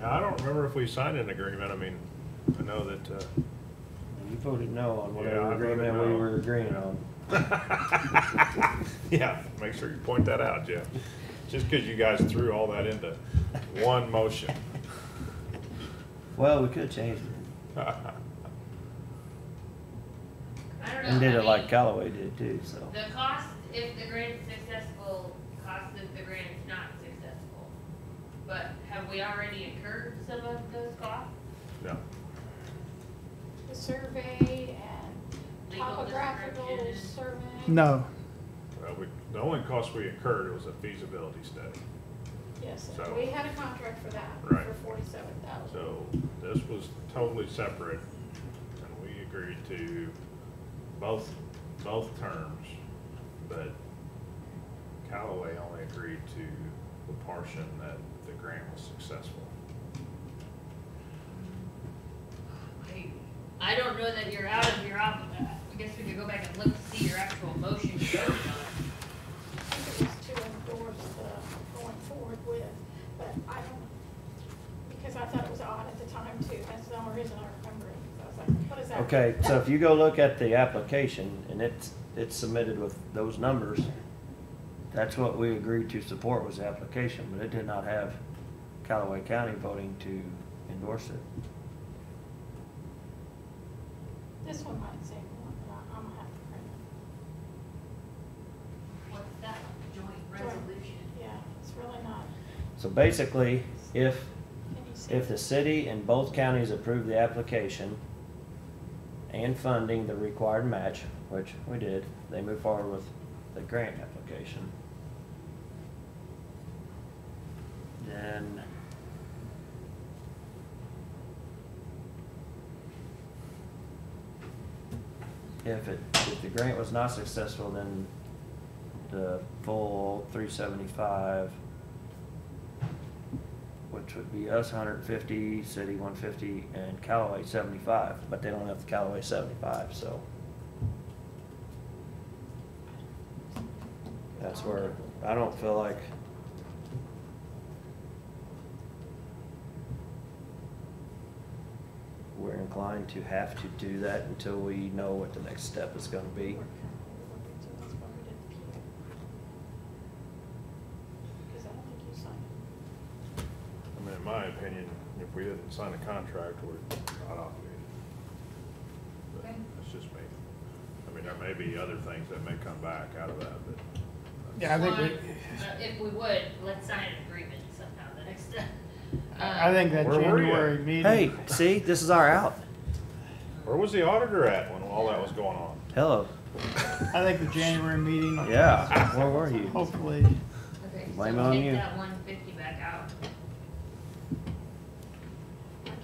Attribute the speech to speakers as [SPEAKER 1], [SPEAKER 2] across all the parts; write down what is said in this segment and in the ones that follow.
[SPEAKER 1] wonder if we sign an agreement, I mean, I know that, uh,
[SPEAKER 2] You voted no on
[SPEAKER 1] Yeah, I
[SPEAKER 2] whatever
[SPEAKER 1] voted
[SPEAKER 2] agreement we
[SPEAKER 1] no.
[SPEAKER 2] were agreeing on.
[SPEAKER 1] uh, yeah, make sure you point that out, Jeff. Just because you guys threw all that into one motion.
[SPEAKER 2] Well, we could change it.
[SPEAKER 3] I don't know.
[SPEAKER 2] And did
[SPEAKER 3] I
[SPEAKER 2] it like
[SPEAKER 3] mean,
[SPEAKER 2] Callaway did too, so.
[SPEAKER 3] The cost, if the grant's successful, cost if the grant's not successful. But have we already incurred some of those costs?
[SPEAKER 1] No,
[SPEAKER 4] the survey and
[SPEAKER 3] Legal
[SPEAKER 4] topographical
[SPEAKER 3] description.
[SPEAKER 4] survey.
[SPEAKER 5] No,
[SPEAKER 1] well, we, the only cost we incurred was a feasibility study.
[SPEAKER 4] Yes,
[SPEAKER 1] So-
[SPEAKER 4] we had a contract for that,
[SPEAKER 1] Right.
[SPEAKER 4] for forty-seven thousand.
[SPEAKER 1] So this was totally separate, and we agreed to both, both terms, but Callaway only agreed to the portion that the grant was successful.
[SPEAKER 3] I- Oh, I don't know that you're out of your op, I guess we could go back and look to see your actual motion you voted on.
[SPEAKER 4] I think it was to endorse the going forward with, but I don't, because I thought it was odd at the time too, that's the only reason I remember it, 'cause I was like, what is that?
[SPEAKER 2] Okay, so if you go look at the application and it's, it's submitted with those numbers, that's what we agreed to support was the application, but it did not have Callaway County voting to endorse it.
[SPEAKER 4] This one might say more, but I- I'm gonna have to print it.
[SPEAKER 3] What's that, joint resolution?
[SPEAKER 4] Yeah, it's really not,
[SPEAKER 2] So basically, if,
[SPEAKER 4] can you see?
[SPEAKER 2] if the city and both counties approve the application and funding the required match, which we did, they move forward with the grant application. Then if it, if the grant was not successful, then the full three seventy-five which would be us hundred and fifty, city one fifty, and Callaway seventy-five, but they don't have the Callaway seventy-five, so that's where, I don't feel like. We're inclined to have to do that until we know what the next step is gonna be.
[SPEAKER 4] We're currently working to, that's why we did the PO. Because I don't think you signed it.
[SPEAKER 1] I mean, in my opinion, if we didn't sign a contract, we're not obligated. But
[SPEAKER 3] Okay.
[SPEAKER 1] That's just me. I mean, there may be other things that may come back out of that, but.
[SPEAKER 5] yeah, I think,
[SPEAKER 3] One,
[SPEAKER 5] we-
[SPEAKER 3] but If we would, let's sign an agreement somehow the next time.
[SPEAKER 5] I I think that
[SPEAKER 1] Where were you?
[SPEAKER 5] January meeting.
[SPEAKER 2] Hey, see, this is our out.
[SPEAKER 1] Where was the auditor at when all that was going on?
[SPEAKER 2] Hello,
[SPEAKER 5] I think the January meeting.
[SPEAKER 2] yeah, where were you?
[SPEAKER 5] Hopefully,
[SPEAKER 3] Okay,
[SPEAKER 2] Blame
[SPEAKER 3] so
[SPEAKER 2] on
[SPEAKER 3] take
[SPEAKER 2] you.
[SPEAKER 3] that one fifty back out.
[SPEAKER 4] I can't look at it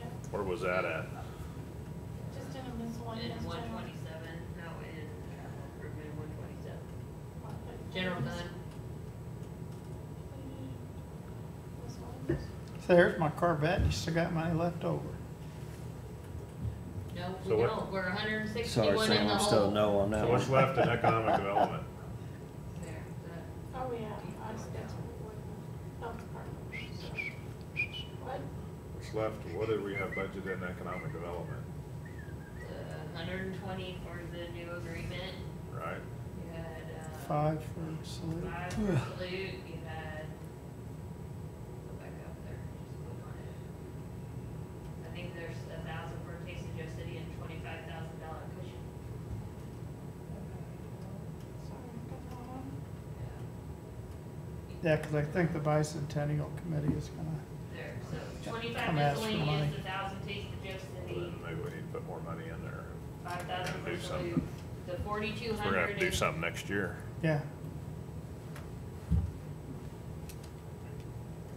[SPEAKER 4] yet.
[SPEAKER 1] Where was that at?
[SPEAKER 4] Just in a miscellaneous
[SPEAKER 3] In one
[SPEAKER 4] general.
[SPEAKER 3] twenty-seven, no, in capital improvement, one twenty-seven.
[SPEAKER 4] fund.
[SPEAKER 3] General fund,
[SPEAKER 4] Miscellaneous.
[SPEAKER 5] so there's my Corvette, you still got money left over.
[SPEAKER 3] no, we
[SPEAKER 1] So what-
[SPEAKER 3] don't, we're hundred and
[SPEAKER 2] Sorry,
[SPEAKER 3] sixty-one in
[SPEAKER 2] Sam,
[SPEAKER 3] the
[SPEAKER 2] I'm still
[SPEAKER 3] hole.
[SPEAKER 2] no on
[SPEAKER 1] So
[SPEAKER 2] that
[SPEAKER 1] what's
[SPEAKER 2] one.
[SPEAKER 1] left in economic development?
[SPEAKER 3] There, that-
[SPEAKER 4] Oh, yeah, I see, that's what we would, health department. so. What?
[SPEAKER 1] What's left, what did we have budgeted in economic development,
[SPEAKER 3] the hundred and twenty for the new agreement,
[SPEAKER 1] right?
[SPEAKER 3] you had, uh.
[SPEAKER 5] Five for salute.
[SPEAKER 3] Five for salute, you had. Go back up there, just go on it. I think there's a thousand for Taste of Joe City and twenty-five thousand dollar cushion.
[SPEAKER 4] Sorry, I got that one.
[SPEAKER 5] Yeah, because I think the bicentennial committee is gonna,
[SPEAKER 3] There, so twenty-five
[SPEAKER 5] Come ask for
[SPEAKER 3] miscellaneous,
[SPEAKER 5] money.
[SPEAKER 3] a thousand Taste of Joe
[SPEAKER 1] Well,
[SPEAKER 3] City,
[SPEAKER 1] then Maybe we need to put more money in there.
[SPEAKER 3] five thousand
[SPEAKER 1] Gotta do
[SPEAKER 3] for salute,
[SPEAKER 1] something.
[SPEAKER 3] the forty-two
[SPEAKER 1] We're gonna have
[SPEAKER 3] hundred
[SPEAKER 1] to do something next year.
[SPEAKER 5] yeah,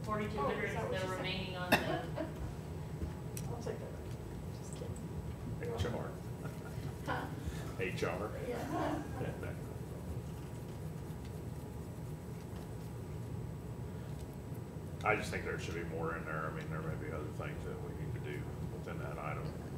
[SPEAKER 3] Forty-two hundred
[SPEAKER 4] Oh,
[SPEAKER 3] is
[SPEAKER 4] is that what
[SPEAKER 3] the
[SPEAKER 4] you said?
[SPEAKER 3] remaining on the,
[SPEAKER 4] I'll take that, just kidding.
[SPEAKER 1] HR,
[SPEAKER 4] Huh,
[SPEAKER 1] HR.
[SPEAKER 4] yeah.
[SPEAKER 1] I just think there should be more in there. I mean, there may be other things that we need to do within that item.